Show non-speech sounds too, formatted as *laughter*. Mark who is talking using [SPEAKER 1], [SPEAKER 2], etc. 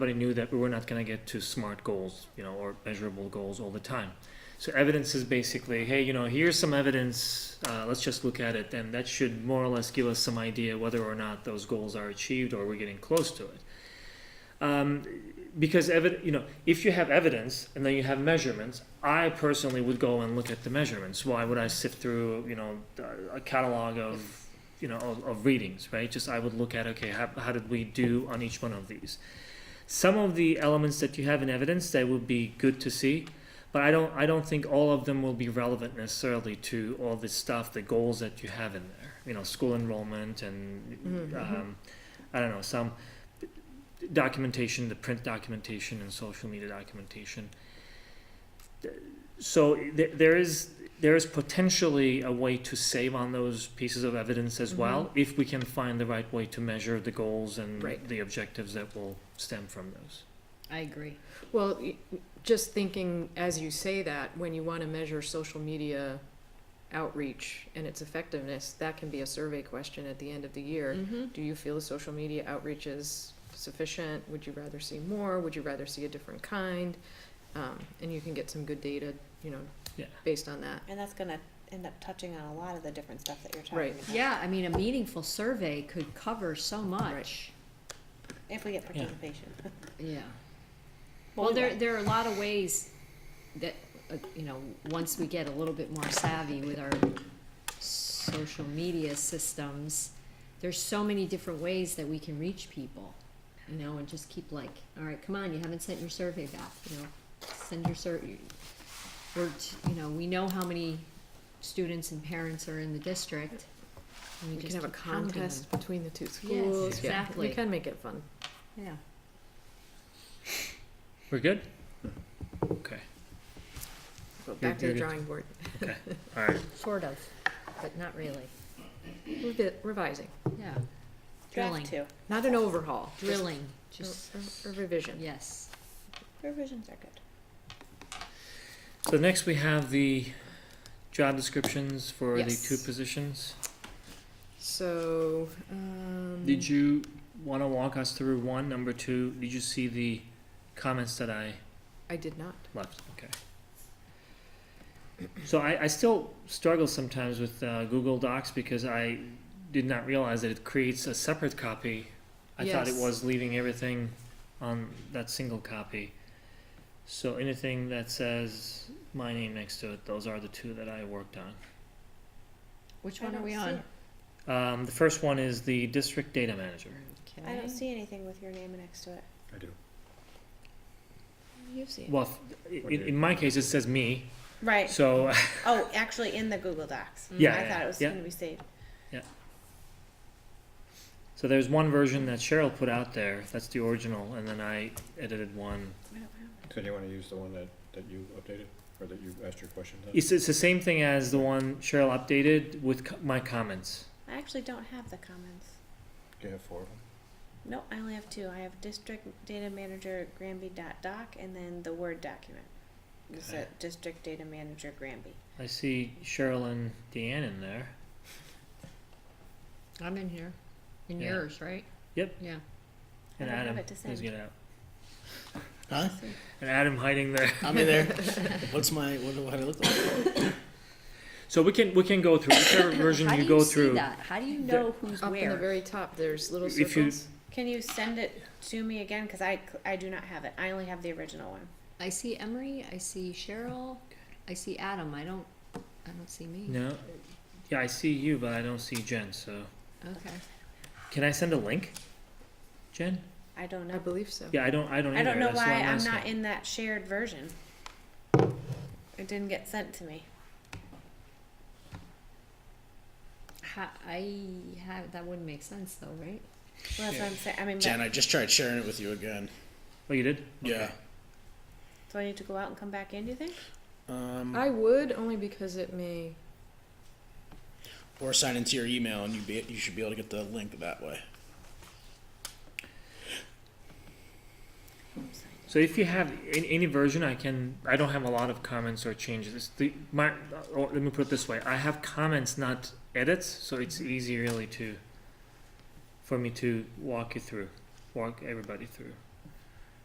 [SPEAKER 1] but I knew that we were not going to get to smart goals, you know, or measurable goals all the time. So evidence is basically, hey, you know, here's some evidence. Uh, let's just look at it, and that should more or less give us some idea whether or not those goals are achieved or we're getting close to it. Um, because evi- you know, if you have evidence and then you have measurements, I personally would go and look at the measurements. Why would I sift through, you know, a- a catalog of, you know, of, of readings, right? Just I would look at, okay, how, how did we do on each one of these? Some of the elements that you have in evidence that would be good to see, but I don't, I don't think all of them will be relevant necessarily to all the stuff, the goals that you have in there. You know, school enrollment and,
[SPEAKER 2] Mhm.
[SPEAKER 1] um, I don't know, some documentation, the print documentation and social media documentation. So th- there is there is potentially a way to save on those pieces of evidence as
[SPEAKER 2] Mm-hmm.
[SPEAKER 1] well if we can find the right way to measure the goals and
[SPEAKER 2] Right.
[SPEAKER 1] the objectives that will stem from those.
[SPEAKER 3] I agree.
[SPEAKER 2] Well, y- just thinking as you say that, when you want to measure social media outreach and its effectiveness, that can be a survey question at the end of the year.
[SPEAKER 3] Mm-hmm.
[SPEAKER 2] Do you feel the social media outreach is sufficient? Would you rather see more? Would you rather see a different kind? Um, and you can get some good data, you know,
[SPEAKER 1] Yeah.
[SPEAKER 2] based on that.
[SPEAKER 4] And that's gonna end up touching on a lot of the different stuff that you're talking
[SPEAKER 2] Right.
[SPEAKER 4] about.
[SPEAKER 3] Yeah, I mean, a meaningful survey could cover so much.
[SPEAKER 4] If we get participation.
[SPEAKER 3] Yeah.
[SPEAKER 4] Well,
[SPEAKER 3] Well,
[SPEAKER 4] we
[SPEAKER 3] there,
[SPEAKER 4] will.
[SPEAKER 3] there are a lot of ways that, uh, you know, once we get a little bit more savvy with our social media systems, there's so many different ways that we can reach people, you know, and just keep like, all right, come on, you haven't sent your survey back, you know, send your survey. We're, t- you know, we know how many students and parents are in the district. and
[SPEAKER 2] You can
[SPEAKER 3] just
[SPEAKER 2] have a
[SPEAKER 3] keep counting them.
[SPEAKER 2] contest between the two schools. Yeah,
[SPEAKER 3] exactly.
[SPEAKER 2] You can make it fun.
[SPEAKER 3] Yeah.
[SPEAKER 1] We're good? Okay.
[SPEAKER 2] Go back to
[SPEAKER 1] you're
[SPEAKER 2] the
[SPEAKER 1] good.
[SPEAKER 2] drawing board.
[SPEAKER 1] All right.
[SPEAKER 3] Sort of, but not really.
[SPEAKER 2] Revi- Revising,
[SPEAKER 3] Yeah. Drilling.
[SPEAKER 4] Draft two.
[SPEAKER 2] not an overhaul. just
[SPEAKER 3] Drilling,
[SPEAKER 2] a-
[SPEAKER 3] just,
[SPEAKER 2] a- A revision.
[SPEAKER 3] yes.
[SPEAKER 4] Revisions are good.
[SPEAKER 1] So next we have the job descriptions for
[SPEAKER 2] Yes.
[SPEAKER 1] the two positions.
[SPEAKER 2] So, um.
[SPEAKER 1] Did you want to walk us through one, number two? Did you see the comments that I
[SPEAKER 2] I did not.
[SPEAKER 1] Left, okay. So I, I still struggle sometimes with uh, Google Docs because I did not realize that it creates a separate copy. I thought it
[SPEAKER 2] Yes.
[SPEAKER 1] was leaving everything on that single copy. So anything that says my name next to it, those are the two that I worked on.
[SPEAKER 3] Which
[SPEAKER 4] I
[SPEAKER 3] one are
[SPEAKER 4] don't
[SPEAKER 3] we
[SPEAKER 4] see
[SPEAKER 3] on?
[SPEAKER 4] it.
[SPEAKER 1] Um, the first one is the district data manager.
[SPEAKER 4] I don't see anything with your name next to it.
[SPEAKER 5] I do.
[SPEAKER 2] You see.
[SPEAKER 1] Well, f- in, in my case, it says me.
[SPEAKER 4] Right.
[SPEAKER 1] So
[SPEAKER 4] *laughs*
[SPEAKER 1] *laughs*
[SPEAKER 4] Oh, actually in the Google Docs.
[SPEAKER 3] Mm-hmm.
[SPEAKER 1] Yeah,
[SPEAKER 4] I
[SPEAKER 1] yeah,
[SPEAKER 4] thought it was
[SPEAKER 1] yeah.
[SPEAKER 4] gonna be saved.
[SPEAKER 1] So there's one version that Cheryl put out there. That's the original, and then I edited one.
[SPEAKER 4] I don't have
[SPEAKER 5] So do you wanna use the one that, that you updated, or that you asked your questions on?
[SPEAKER 1] It's, it's the same thing as the one Cheryl updated with co- my comments.
[SPEAKER 4] it. I actually don't have the comments.
[SPEAKER 5] Do you have four of them?
[SPEAKER 4] No, I only have two. I have district data manager Granby dot doc and then the Word document. It's
[SPEAKER 1] Okay.
[SPEAKER 4] a district data manager Granby.
[SPEAKER 1] I see Cheryl and Deanne in there.
[SPEAKER 3] I'm in here. In
[SPEAKER 1] Yeah.
[SPEAKER 3] yours, right?
[SPEAKER 1] Yep.
[SPEAKER 3] Yeah.
[SPEAKER 1] And
[SPEAKER 4] I don't have
[SPEAKER 1] Adam
[SPEAKER 4] it to
[SPEAKER 1] Please
[SPEAKER 4] send.
[SPEAKER 1] get out.
[SPEAKER 6] Huh?
[SPEAKER 1] And Adam hiding there.
[SPEAKER 6] I'm in there. What's my what do, what do I look like?
[SPEAKER 1] So we can we can go through
[SPEAKER 4] *coughs*
[SPEAKER 1] whichever version
[SPEAKER 3] How
[SPEAKER 1] you
[SPEAKER 3] do
[SPEAKER 1] go
[SPEAKER 3] you see
[SPEAKER 1] through.
[SPEAKER 3] that? How do you
[SPEAKER 1] There-
[SPEAKER 3] know
[SPEAKER 2] *laughs*
[SPEAKER 3] who's
[SPEAKER 2] Up in the
[SPEAKER 3] where?
[SPEAKER 2] very top, there's little
[SPEAKER 1] If you-
[SPEAKER 2] circles.
[SPEAKER 4] Can you send it to me again? Cause I, cl- I do not have it. I only have the original one.
[SPEAKER 3] I see Emery, I see Cheryl, I see Adam, I don't, I don't see me.
[SPEAKER 1] No. Yeah, I see you, but I don't see Jen. So
[SPEAKER 3] Okay.
[SPEAKER 1] can I send a link, Jen?
[SPEAKER 4] I don't
[SPEAKER 2] I
[SPEAKER 4] know.
[SPEAKER 2] believe so.
[SPEAKER 1] Yeah, I don't. I don't.
[SPEAKER 4] I don't
[SPEAKER 1] either.
[SPEAKER 4] know
[SPEAKER 1] That's why I'm
[SPEAKER 4] why I'm
[SPEAKER 1] asking.
[SPEAKER 4] not in that shared version. It didn't get sent to me.
[SPEAKER 3] How, I have, that wouldn't make sense though, right?
[SPEAKER 4] Well, that's what I'm saying. I mean,
[SPEAKER 6] Jen,
[SPEAKER 4] but,
[SPEAKER 6] I just tried sharing it with you again.
[SPEAKER 1] Oh, you did?
[SPEAKER 6] Yeah.
[SPEAKER 4] do I need to go out and come back in? Do you think?
[SPEAKER 6] Um,
[SPEAKER 2] I would, only because it may,
[SPEAKER 6] or sign into your email, and you be you should be able to get the link that way.
[SPEAKER 1] So if you have any, any version, I can, I don't have a lot of comments or changes. The, my, or let me put it this way, I have comments, not edits, so it's easy really to, for me to walk you through, walk everybody through.